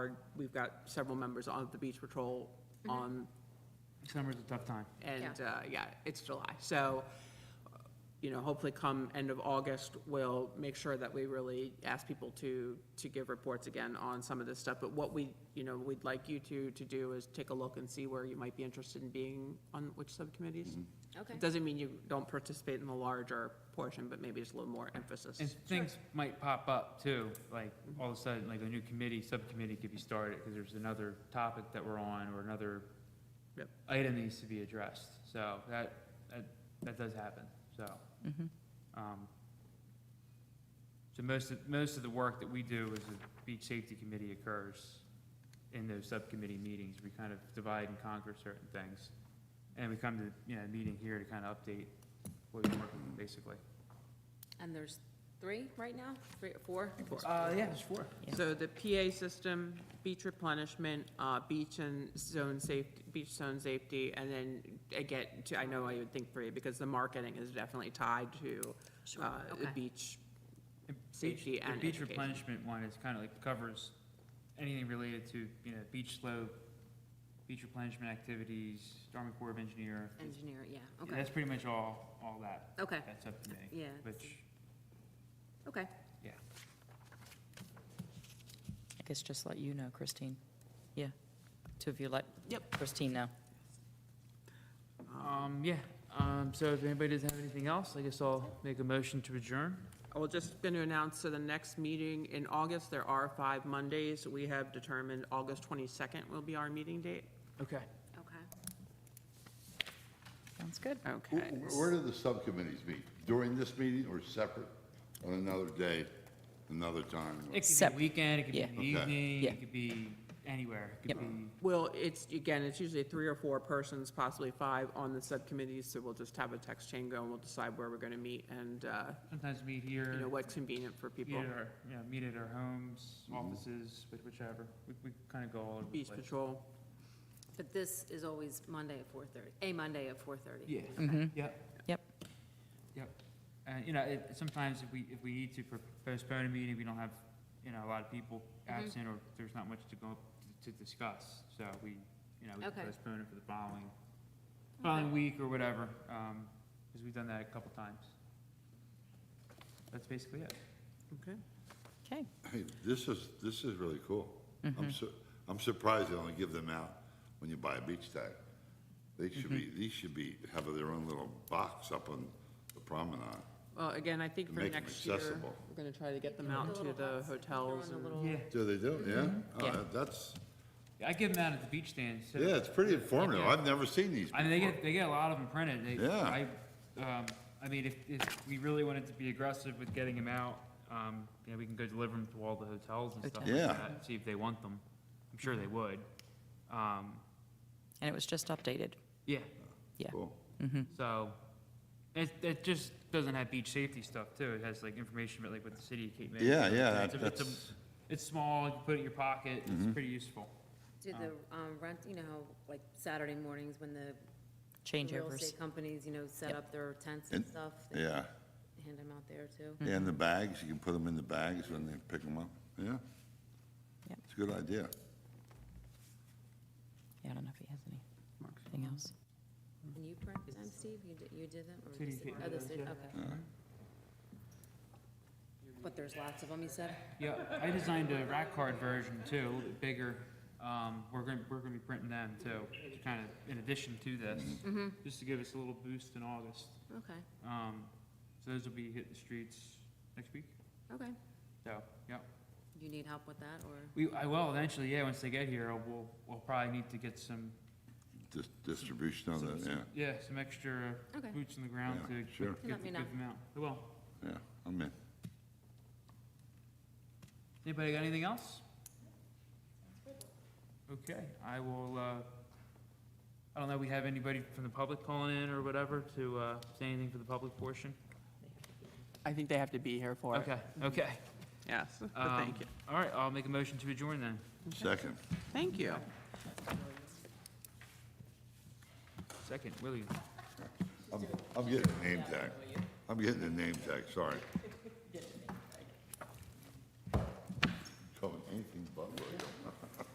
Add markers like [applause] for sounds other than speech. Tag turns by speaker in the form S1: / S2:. S1: board. We've got several members on the beach patrol on,
S2: Summer's a tough time.
S1: and, uh, yeah, it's July. So, you know, hopefully come end of August, we'll make sure that we really ask people to, to give reports again on some of this stuff. But what we, you know, we'd like you to, to do is take a look and see where you might be interested in being on which subcommittees.
S3: Okay.
S1: It doesn't mean you don't participate in the larger portion, but maybe just a little more emphasis.
S2: And things might pop up too, like all of a sudden, like a new committee, subcommittee could be started because there's another topic that we're on or another
S1: Yep.
S2: item needs to be addressed. So that, that, that does happen, so. um, So most of, most of the work that we do as a beach safety committee occurs in those subcommittee meetings. We kind of divide and conquer certain things. And we come to, you know, a meeting here to kind of update what we're working on, basically.
S3: And there's three right now, three, four?
S2: Uh, yeah, there's four.
S1: So the PA system, beach replenishment, uh, beach and zone safety, beach zone safety, and then I get to, I know I would think three, because the marketing is definitely tied to,
S3: Sure,
S1: uh, the
S3: okay.
S1: beach.
S2: And
S1: Safety
S2: beach- the
S1: and
S2: Beach
S1: education.
S2: replenishment one is kind of like covers anything related to, you know, beach slope, beach replenishment activities, Army Corps of Engineer.
S3: Engineer, yeah,
S2: Yeah,
S3: okay,
S2: That's pretty much all, all that.
S3: Okay.
S2: That subcommittee.
S3: Yeah.
S2: Which,
S3: okay.
S2: yeah.
S4: I guess just let you know, Christine. Yeah, two of you let
S1: Yep.
S4: Christine know.
S2: Um, yeah, um, so if anybody doesn't have anything else, I guess I'll make a motion to adjourn.
S1: I was just going to announce, so the next meeting in August, there are five Mondays. We have determined August twenty-second will be our meeting date.
S2: Okay.
S3: Okay.
S4: Sounds good.
S1: Okay.
S5: Wh- Where do the subcommittees meet? During this meeting or separate on another day, another time?
S2: It could
S4: Sep-
S2: be weekend, it could be
S4: yeah.
S2: in the
S5: Okay.
S2: evening,
S4: Yeah.
S2: it could be anywhere. It could
S4: Yep.
S2: be,
S1: Well, it's, again, it's usually three or four persons, possibly five, on the subcommittees, so we'll just have a text chain go and we'll decide where we're going to meet and, uh,
S2: sometimes meet here.
S1: you know, what's convenient for
S2: Meet
S1: people.
S2: at our, you know, meet at our homes, offices, which- whichever. We, we kind of go all over the
S1: Beach
S2: place.
S1: patrol.
S3: But this is always Monday at four thirty, a Monday at four thirty.
S2: Yeah, yep,
S4: Yep,
S2: yep. And, you know, it, sometimes if we, if we need to pro- postpone a meeting, we don't have, you know, a lot of people absent or there's not much to go, to discuss. So we, you know, we can
S3: Okay.
S2: postpone it for the following, following week or whatever, um, because we've done that a couple times. That's basically it.
S1: Okay.
S4: okay.
S5: Hey, this is, this is really cool.
S2: Mm-hmm.
S5: I'm su, I'm surprised they only give them out when you buy a beach tag. They should be,
S2: Mm-hmm.
S5: these should be, have their own little box up on the promenade.
S1: Well, again, I think for
S5: Make 'em
S1: next year,
S5: accessible.
S1: we're going to try to get them
S3: Yeah,
S1: out
S3: the
S1: to
S3: little
S1: the
S3: huts, throw in
S1: hotels
S3: the
S1: and.
S3: little-
S2: Yeah,
S5: Do they do, yeah?
S4: Yeah.
S5: Oh, that's,
S2: I give them out at the beach stand, so.
S5: yeah, it's pretty informative.
S2: Yeah.
S5: I've never seen these
S2: I mean, they
S5: before.
S2: get, they get a lot of them printed. They,
S5: Yeah.
S2: I, um, I mean, if, if we really wanted to be aggressive with getting them out, um, you know, we can go deliver them to all the hotels and stuff like
S5: Hotels. Yeah.
S2: that, and see if they want them. I'm sure they would. Um,
S4: And it was just updated.
S2: yeah,
S4: Yeah.
S5: Cool.
S2: so, it, it just doesn't have beach safety stuff too. It has like information about like what the city of Cape May.
S5: Yeah,
S2: It's
S5: yeah,
S2: a- it's a-
S5: that's- Mm-hmm.
S2: It's small, you can put it in your pocket, it's pretty useful.
S3: Do the, um, rent, you know, how, like Saturday mornings when the real
S4: Changeovers.
S3: estate companies, you know, set
S4: Yep.
S3: up their tents and
S5: And-
S3: stuff. they
S5: Yeah,
S3: Hand them out there too.
S2: Mm-hmm.
S5: and the bags, you can put them in the bags when they pick them up, yeah?
S4: Yep.
S5: It's a good idea.
S4: Yeah, I don't know if he has anything else.
S3: And you print them, Steve? You did, you did them? or
S2: City
S3: just-
S2: did
S3: oh, the
S2: those,
S3: city-
S2: yeah.
S3: okay. But there's lots of them, you said?
S2: Yeah, I designed a rack card version too, a little bit bigger. Um, we're gonna, we're gonna be printing them too, to kind of, in addition to this,
S3: Mm-hmm.
S2: just to give us a little boost in August.
S3: Okay,
S2: Um, so those will be hitting the streets next week,
S3: okay.
S2: so, yeah.
S3: You need help with that or?
S2: We, I will eventually, yeah, once they get here, we'll, we'll probably need to get some,
S5: Dis- Distribution of that, yeah,
S2: yeah, some extra
S3: Okay.
S2: boots in the ground
S5: Yeah,
S2: to
S5: sure.
S2: get,
S3: Let
S2: get
S3: me
S2: the-
S3: know.
S2: get them out. I will.
S5: yeah, I'm in.
S2: Anybody got anything else? Okay, I will, uh, I don't know, we have anybody from the public calling in or whatever to, uh, say anything for the public portion?
S1: I think they have to be here for it.
S2: Okay, okay.
S1: Yes, [laughs] but thank
S2: Um,
S1: you.
S2: All right, I'll make a motion to adjourn then.
S5: Second.
S1: Thank you.
S2: Second, William.
S5: [laughs] I'm, I'm getting a name tag. I'm getting a name tag, sorry.